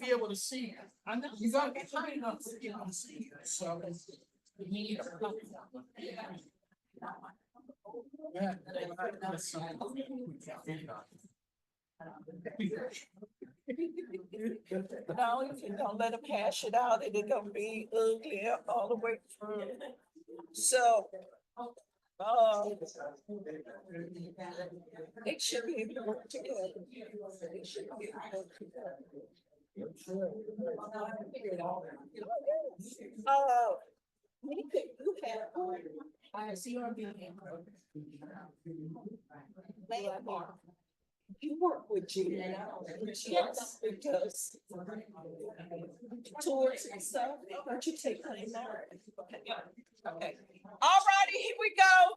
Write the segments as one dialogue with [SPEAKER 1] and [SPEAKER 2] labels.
[SPEAKER 1] be able to see it. I know. You gotta be high enough to be able to see it, so.
[SPEAKER 2] No, if you don't let them hash it out, it is gonna be ugly all the way through. So, um, uh, it should be able to work together. It should be able to work together. Uh, we could, you have one
[SPEAKER 1] I see our building.
[SPEAKER 2] landmark. You work with Gina. Yes, because towards and so, why don't you take her in there? Okay, yeah, okay. All righty, here we go.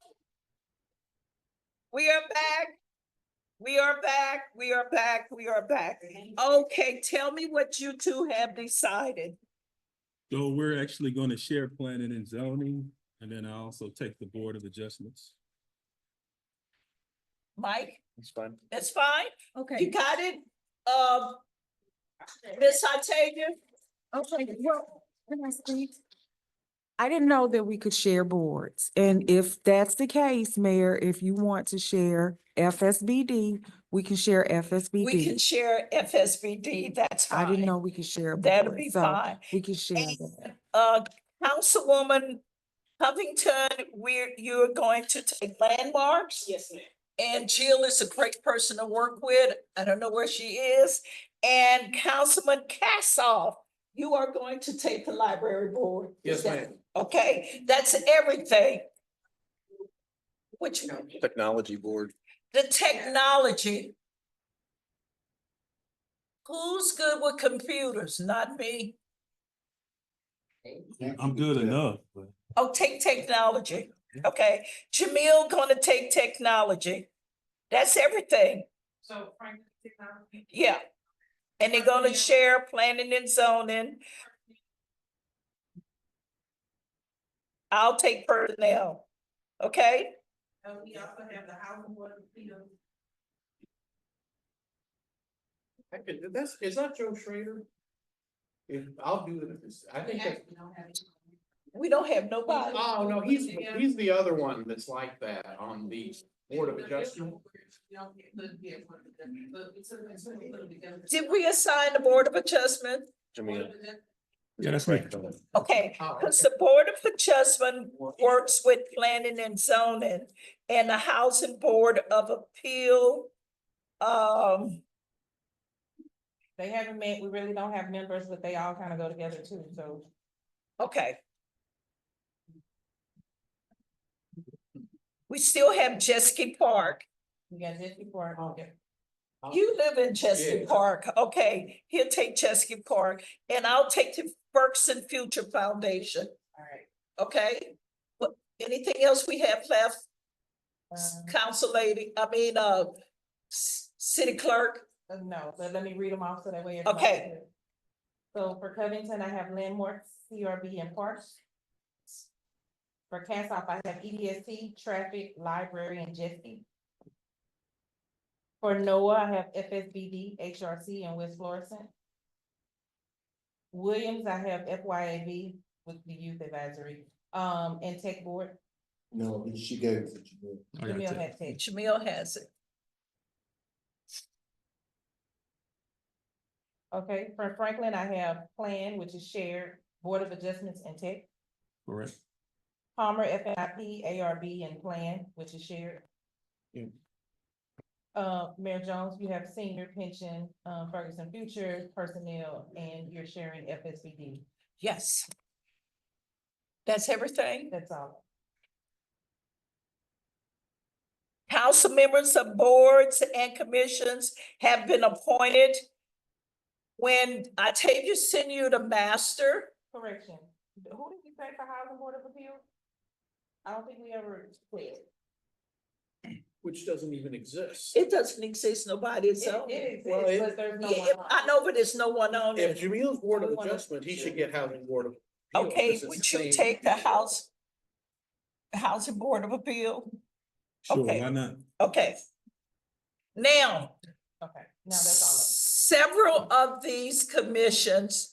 [SPEAKER 2] We are back. We are back, we are back, we are back. Okay, tell me what you two have decided.
[SPEAKER 3] So we're actually going to share planning and zoning, and then I also take the board of adjustments.
[SPEAKER 2] Mike,
[SPEAKER 4] It's fine.
[SPEAKER 2] that's fine? You
[SPEAKER 5] Okay,
[SPEAKER 2] got it? Um, Ms. Hatavia?
[SPEAKER 5] okay, well, can I speak? I didn't know that we could share boards, and if that's the case, Mayor, if you want to share FSBD, we can share
[SPEAKER 2] We can
[SPEAKER 5] FSBD.
[SPEAKER 2] share FSBD, that's
[SPEAKER 5] I didn't
[SPEAKER 2] fine.
[SPEAKER 5] know we could share. a
[SPEAKER 2] That'll
[SPEAKER 5] board,
[SPEAKER 2] be
[SPEAKER 5] so
[SPEAKER 2] fine.
[SPEAKER 5] We can share
[SPEAKER 2] And,
[SPEAKER 5] that.
[SPEAKER 2] Uh, Councilwoman Covington, we're, you're going to take landmarks? Yes, ma'am. And Jill is a great person to work with. I don't know where she is. And Councilman Cassoff, you are going to take the library board. Is
[SPEAKER 4] Yes,
[SPEAKER 2] that- Okay, that's everything. Which,
[SPEAKER 4] Technology board.
[SPEAKER 2] the technology. Who's good with computers? Not me.
[SPEAKER 3] I'm good enough, but
[SPEAKER 2] Oh, take technology, okay. Jamil gonna take technology. That's everything,
[SPEAKER 1] So Frank, technology.
[SPEAKER 2] yeah. And they're gonna share planning and zoning. I'll take personnel, okay?
[SPEAKER 1] And we also have the housing board of appeals.
[SPEAKER 4] I could, that's, is that Joe Schrader? If, I'll do this, I
[SPEAKER 1] We
[SPEAKER 4] think that,
[SPEAKER 1] actually don't have it.
[SPEAKER 2] We don't have nobody.
[SPEAKER 4] oh, no, he's, he's the other one that's like that on the Board of Adjustment.
[SPEAKER 1] We don't get- couldn't get one of them, but we took it, so we put it together.
[SPEAKER 2] Did we assign the Board of Adjustment?
[SPEAKER 1] Board of Adjustment,
[SPEAKER 3] yeah, that's me.
[SPEAKER 2] Okay,
[SPEAKER 4] Oh, okay.
[SPEAKER 2] because the Board of Adjustment works with planning and zoning and the Housing Board of Appeal. Um,
[SPEAKER 6] They haven't met, we really don't have members, but they all kind of go together too, so.
[SPEAKER 2] okay. We still have Chesky Park.
[SPEAKER 6] We got this before. okay.
[SPEAKER 2] You live in Chesky
[SPEAKER 4] Yeah.
[SPEAKER 2] Park, okay, he'll take Chesky Park and I'll take the Berkson Future Foundation,
[SPEAKER 6] All right.
[SPEAKER 2] okay? What, anything else we have left? S-
[SPEAKER 6] Um,
[SPEAKER 2] Council lady, I mean, uh, s- city clerk,
[SPEAKER 6] Uh, No, but let me read them off so that way. everybody
[SPEAKER 2] Okay.
[SPEAKER 6] can- So for Covington, I have landmarks, CRB and parks. For Cassoff, I have E EDSC, traffic, library and Jesse. For NOAA, I have FSBD, HRC and West Florissant. Williams, I have FYAB with the youth advisory, um, and tech board,
[SPEAKER 7] No, she gave it to me.
[SPEAKER 3] I gotta
[SPEAKER 6] Jamil
[SPEAKER 3] take-
[SPEAKER 6] had tech.
[SPEAKER 2] Jamil has it.
[SPEAKER 6] Okay, for Franklin, I have plan, which is shared, Board of Adjustments and Tech.
[SPEAKER 3] Correct.
[SPEAKER 6] Palmer, FNIP, ARB, and Plan, which is shared.
[SPEAKER 4] Yeah.
[SPEAKER 6] Uh, Mayor Jones, you have senior pension, um, Ferguson Future, personnel, and you're sharing FSBD.
[SPEAKER 2] Yes. That's everything.
[SPEAKER 6] That's all.
[SPEAKER 2] Council members of boards and commissions have been appointed. When I take you, send you the master,
[SPEAKER 6] Correction. Who did you say for Housing Board of Appeals? I don't think we ever quit.
[SPEAKER 4] Which doesn't even exist.
[SPEAKER 2] it doesn't exist, nobody is
[SPEAKER 6] It
[SPEAKER 2] on it.
[SPEAKER 6] it
[SPEAKER 4] Well,
[SPEAKER 6] exists,
[SPEAKER 4] it-
[SPEAKER 6] but there's no
[SPEAKER 2] Yeah,
[SPEAKER 6] one.
[SPEAKER 2] if- I know, but there's no one on
[SPEAKER 4] If
[SPEAKER 2] it.
[SPEAKER 4] Jamil's Board of Adjustment, he should get Housing Board of. Appeals,
[SPEAKER 2] Okay,
[SPEAKER 4] 'cause it's
[SPEAKER 2] would
[SPEAKER 4] the
[SPEAKER 2] you
[SPEAKER 4] same
[SPEAKER 2] take the
[SPEAKER 4] people.
[SPEAKER 2] House? Housing Board of Appeal?
[SPEAKER 3] Sure,
[SPEAKER 2] Okay.
[SPEAKER 3] why not?
[SPEAKER 2] Okay. Now,
[SPEAKER 6] Okay, now that's all. of them.
[SPEAKER 2] several of these commissions